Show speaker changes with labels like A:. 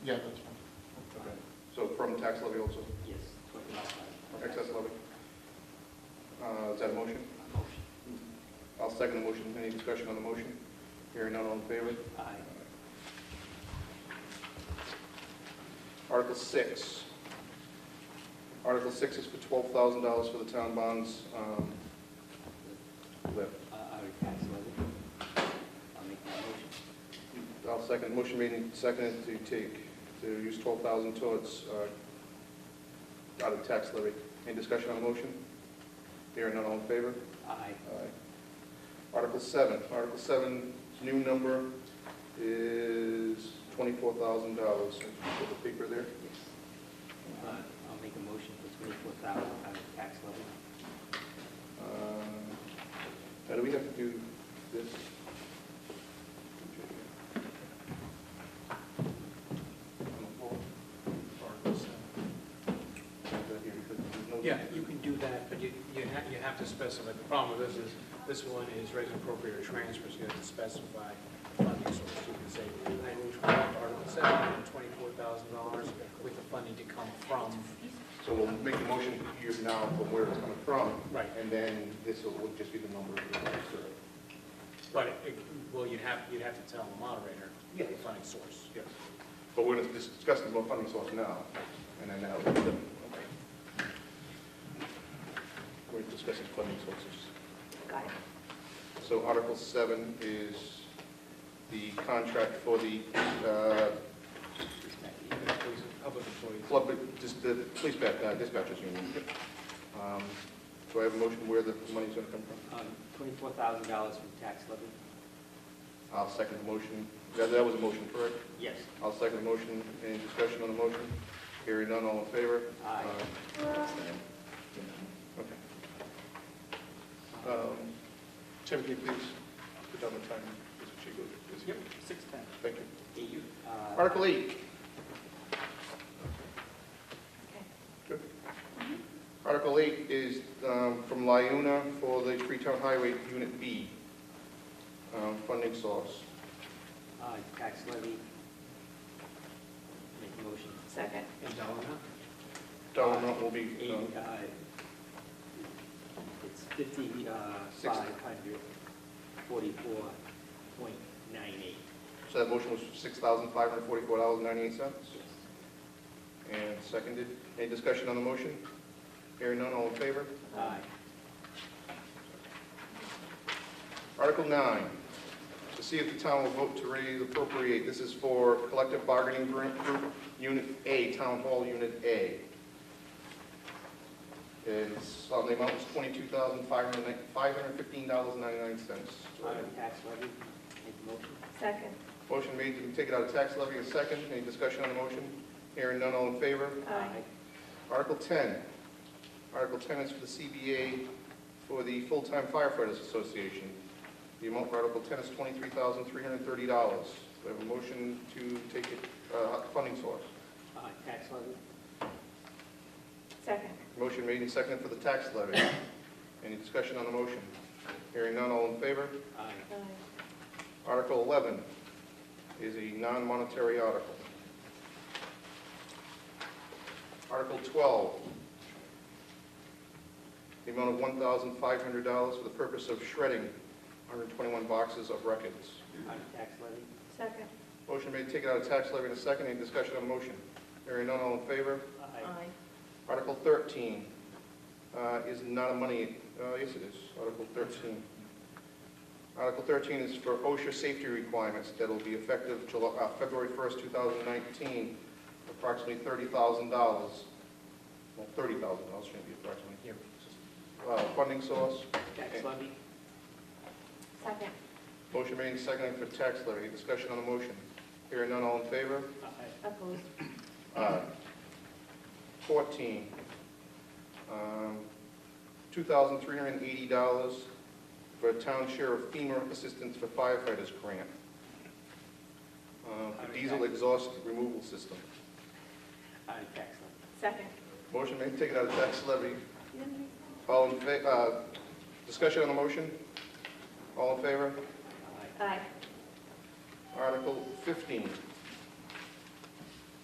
A: tax levy also,
B: Yes, what the last one.
A: excess levy. Uh, Is that a motion?
B: Motion.
A: I'll second the motion. Any discussion on the motion? Hearing none, all in favor?
B: Aye.
A: Article 6. Article 6 is for $12,000 for the town bonds um, levy.
B: Uh, Our tax levy. I'll make that motion.
A: I'll second, motion made and seconded to take, to use twelve thousand towards, uh, out of tax levy. Any discussion on the motion? Hearing none, all in favor?
B: Aye.
A: Aye. Article seven, Article seven's new number is twenty-four thousand dollars. Put the paper there.
B: Yes. Uh, I'll make a motion for twenty-four thousand out of tax levy.
A: Uh, Now, do we have to do this?
C: Yeah, you can do that, but you, you have, you have to specify, the problem with this is, this one is rate appropriate or transfers, you have to specify the funding source. You can say, I move to Article seven, twenty-four thousand dollars with the funding to come from,
A: So we'll make the motion here now from where it's coming from.
C: Right.
A: And then this will would just be the number. of the register.
C: but, it- well, you'd have, you'd have to tell the moderator the
A: Yeah.
C: funding source.
A: Yes. But we're going to discuss the funding source now, and then that'll. Okay. We're discussing funding sources.
D: Got it.
A: So Article 7 is the contract for the uh,
C: Public employees.
A: club, just the police bat- uh, dispatchers union.
D: Mm-hmm.
A: Um, Do I have a motion where the money's going to come from?
B: Um, Twenty-four thousand dollars from tax levy.
A: I'll second the motion. That that was a motion, correct?
B: Yes.
A: I'll second the motion. Any discussion on the motion? Hearing none, all in favor?
B: Aye.
A: Okay. Um, Tim, can you please put down the time? Mr. Chico, is here.
B: Six ten.
A: Thank you.
B: You. uh,
A: Article 8. Good. Article 8 is um, from Lyuna for the Freetown Highway Unit B, um, funding source.
B: uh, Tax levy. Make a motion.
D: Second.
C: And dollar amount?
A: Dollar amount will be,
B: Eighty,
A: um,
B: uh, it's fifty-five hundred forty-four point nine eight.
A: so that motion was $6,544.98,
B: Yes.
A: and seconded. Any discussion on the motion? Hearing none, all in favor?
B: Aye.
A: Article 9, to see if the town will vote to raise appropriate, this is for collective bargaining group, group Unit A, Town Hall Unit A. And it's, uh, the amount was $22,515.99.
B: Out of tax levy. Make a motion.
D: Second.
A: Motion made to take it out of tax levy, a second, any discussion on the motion? Hearing none, all in favor?
D: Aye.
A: Article 10, Article 10 is for the CBA for the Full-Time Firefighters Association. The amount for Article 10 is $23,330. Do I have a motion to take it, uh, funding source?
B: Uh, tax levy.
D: Second.
A: Motion made and seconded for the tax levy. Any discussion on the motion? Hearing none, all in favor?
B: Aye.
D: Aye.
A: Article 11 is a non-monetary article. Article 12, the amount of $1,500 for the purpose of shredding 121 boxes of records.
B: Out of tax levy.
D: Second.
A: Motion made, take it out of tax levy in a second. Any discussion on the motion? Hearing none, all in favor?
B: Aye.
A: Article 13 uh, is not a money, uh, yes it is, Article 13. Article 13 is for OSHA safety requirements that'll be effective July- uh, February 1st, 2019, approximately $30,000. Well, $30,000 shouldn't be approximately.
C: Yeah.
A: Uh, Funding source,
B: Tax levy.
D: Second.
A: motion made and seconded for tax levy. Discussion on the motion. Hearing none, all in favor?
B: Aye.
D: Opposed.
A: Aye. 14, um, $2,380 for a town share of FEMA assistance for firefighters grant. uh, For diesel exhaust removal system.
B: Out of tax levy.
D: Second.
A: Motion made, take it out of tax levy. All in, fa- uh, discussion on the motion? All in favor?
B: Aye.
D: Aye.
A: Article 15